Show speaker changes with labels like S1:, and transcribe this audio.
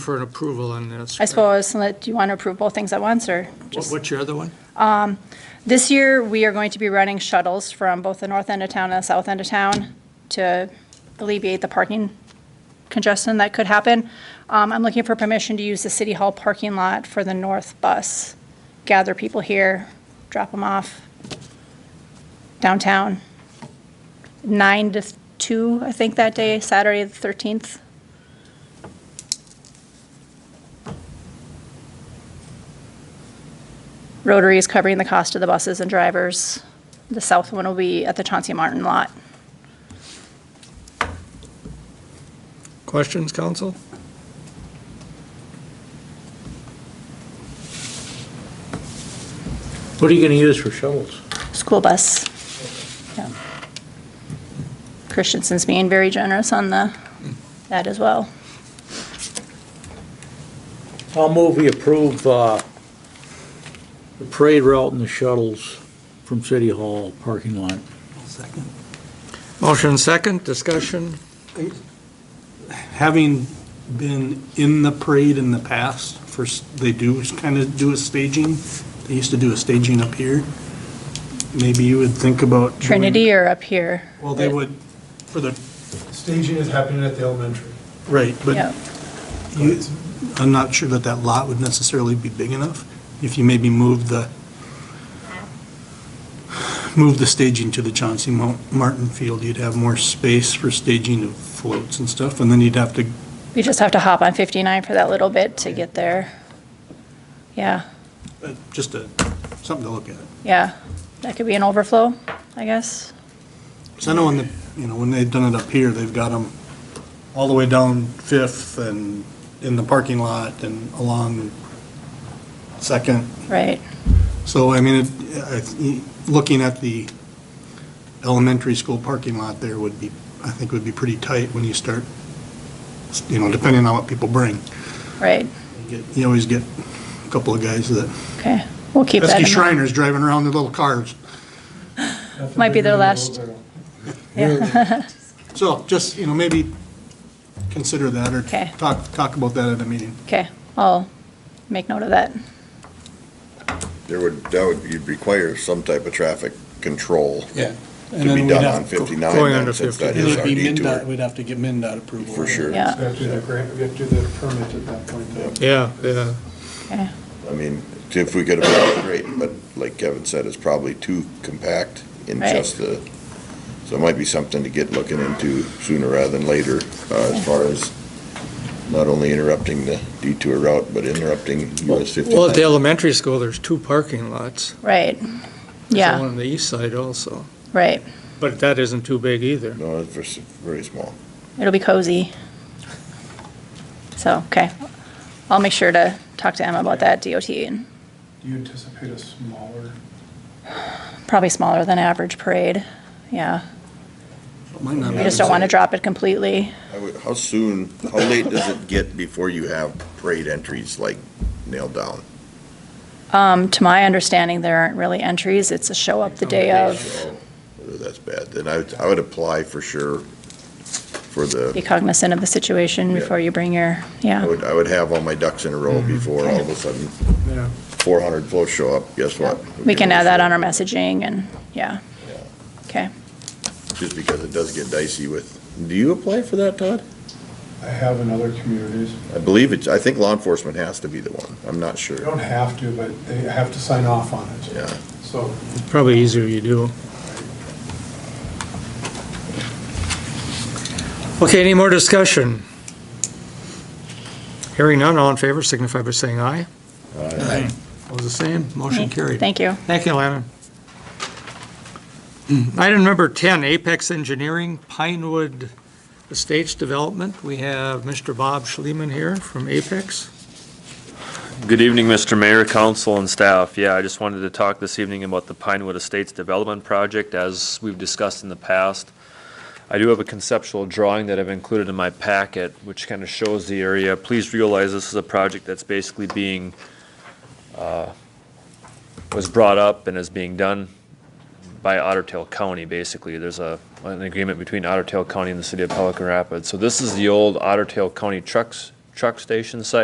S1: for an approval on this.
S2: I suppose, let- do you want to approve both things at once, or
S1: What-
S2: just?
S1: What's your other one?
S2: This year, we are going to be running shuttles from both the north end of town and the south end of town to alleviate the parking congestion that could happen. Um, I'm looking for permission to use the City Hall parking lot for the north bus. Gather people here, drop them off downtown. Nine to two, I think, that day, Saturday, the 13th. Rotary is covering the cost of the buses and drivers. The south one will be at the Chauncey Martin lot.
S1: Questions, council?
S3: What are you going to use for shovels?
S2: School bus. Yeah. Christensen's being very generous on the, that as well.
S3: I'll move we approve uh, the parade route and the shuttles from City Hall parking lot.
S4: Second.
S1: Motion second, discussion.
S4: Having been in the parade in the past, first, they do kind of do a staging. They used to do a staging up here. Maybe you would think about. doing-
S2: Trinity or up here.
S4: Well, they would, for the,
S5: Staging is happening at the elementary.
S4: right,
S2: Yeah.
S4: but you, I'm not sure that that lot would necessarily be big enough. If you maybe move the, move the staging to the Chauncey Mo- Martin Field, you'd have more space for staging of floats and stuff, and then you'd have to
S2: We just have to hop on 59 for that little bit to get there. Yeah,
S4: Uh, Just a, something to look at.
S2: yeah. That could be an overflow, I guess.
S4: Because I know when, the you know, when they've done it up here, they've got them all the way down Fifth and in the parking lot and along Second.
S2: Right,
S4: So, I mean, it- I- looking at the elementary school parking lot there would be, I think would be pretty tight when you start, you know, depending on what people bring.
S2: right.
S4: You get- You always get a couple of guys that,
S2: Okay. We'll keep that in
S4: pesky
S2: mind.
S4: Shriners driving around their little cars.
S2: Might be their last- Yeah.
S4: So just, you know, maybe consider that or
S2: Okay.
S4: talk, talk about that at a meeting.
S2: Okay, I'll make note of that.
S6: There would, that would, you'd require some type of traffic control
S4: Yeah.
S6: to be done on 59
S1: going
S6: then,
S1: under
S6: since that
S4: And
S6: is our
S4: it'd be MinDOT,
S6: detour.
S4: we'd have to get MinDOT approval.
S6: For sure.
S2: Yeah.
S5: We have to do the grant, we have to do the permit at that point, though.
S1: Yeah, yeah.
S2: Okay.
S6: I mean, if we could have, been great, but like Kevin said, it's probably too compact in
S2: Right.
S6: just the, so it might be something to get looking into sooner rather than later, uh, as far as not only interrupting the detour route, but interrupting US 59.
S1: Well, at the elementary school, there's two parking lots.
S2: Right.
S1: There's one
S2: Yeah,
S1: on the east side also.
S2: right.
S1: But that isn't too big either.
S6: No, it's vers- very small.
S2: It'll be cozy. So, okay. I'll make sure to talk to Emma about that DOT and
S5: Do you anticipate a smaller?
S2: probably smaller than average parade. Yeah.
S4: Might not
S2: We
S4: be.
S2: just don't want to drop it completely.
S6: I would- How soon, how late does it get before you have parade entries like nailed down?
S2: Um, to my understanding, there aren't really entries. It's a show up the day of.
S6: So, Oh, That's bad. Then I, would- I would apply for sure for
S2: Be
S6: the,
S2: cognizant of the situation
S6: Yeah.
S2: before you bring your,
S6: I
S2: yeah.
S6: would, I would have all my ducks in a row before all of a sudden
S1: Yeah.
S6: four hundred floats show up. Guess what?
S2: We can add that on our messaging and, yeah.
S6: Yeah.
S2: Okay.
S6: Just because it does get dicey with, do you apply for that, Todd?
S5: I have in other communities.
S6: I believe it's, I think law enforcement has to be the one. I'm not
S5: They
S6: sure.
S5: don't have to, but they have to sign off on it.
S6: Yeah.
S5: So
S1: Probably easier you do. Okay, any more discussion? Hearing none, all in favor signify by saying aye.
S6: Aye.
S1: All the same, motion carried.
S2: Thank you.
S1: Thank you, Lana. Item number 10, Apex Engineering, Pinewood Estates Development. We have Mr. Bob Schliemann here from Apex.
S7: Good evening, Mr. Mayor, council, and staff. Yeah, I just wanted to talk this evening about the Pinewood Estates Development Project, as we've discussed in the past. I do have a conceptual drawing that I've included in my packet, which kind of shows the area. Please realize this is a project that's basically being, uh, was brought up and is being done by Otter Tail County, basically. There's a, an agreement between Otter Tail County and the city of Pelican Rapids. So this is the old Otter Tail County Trucks truck station site.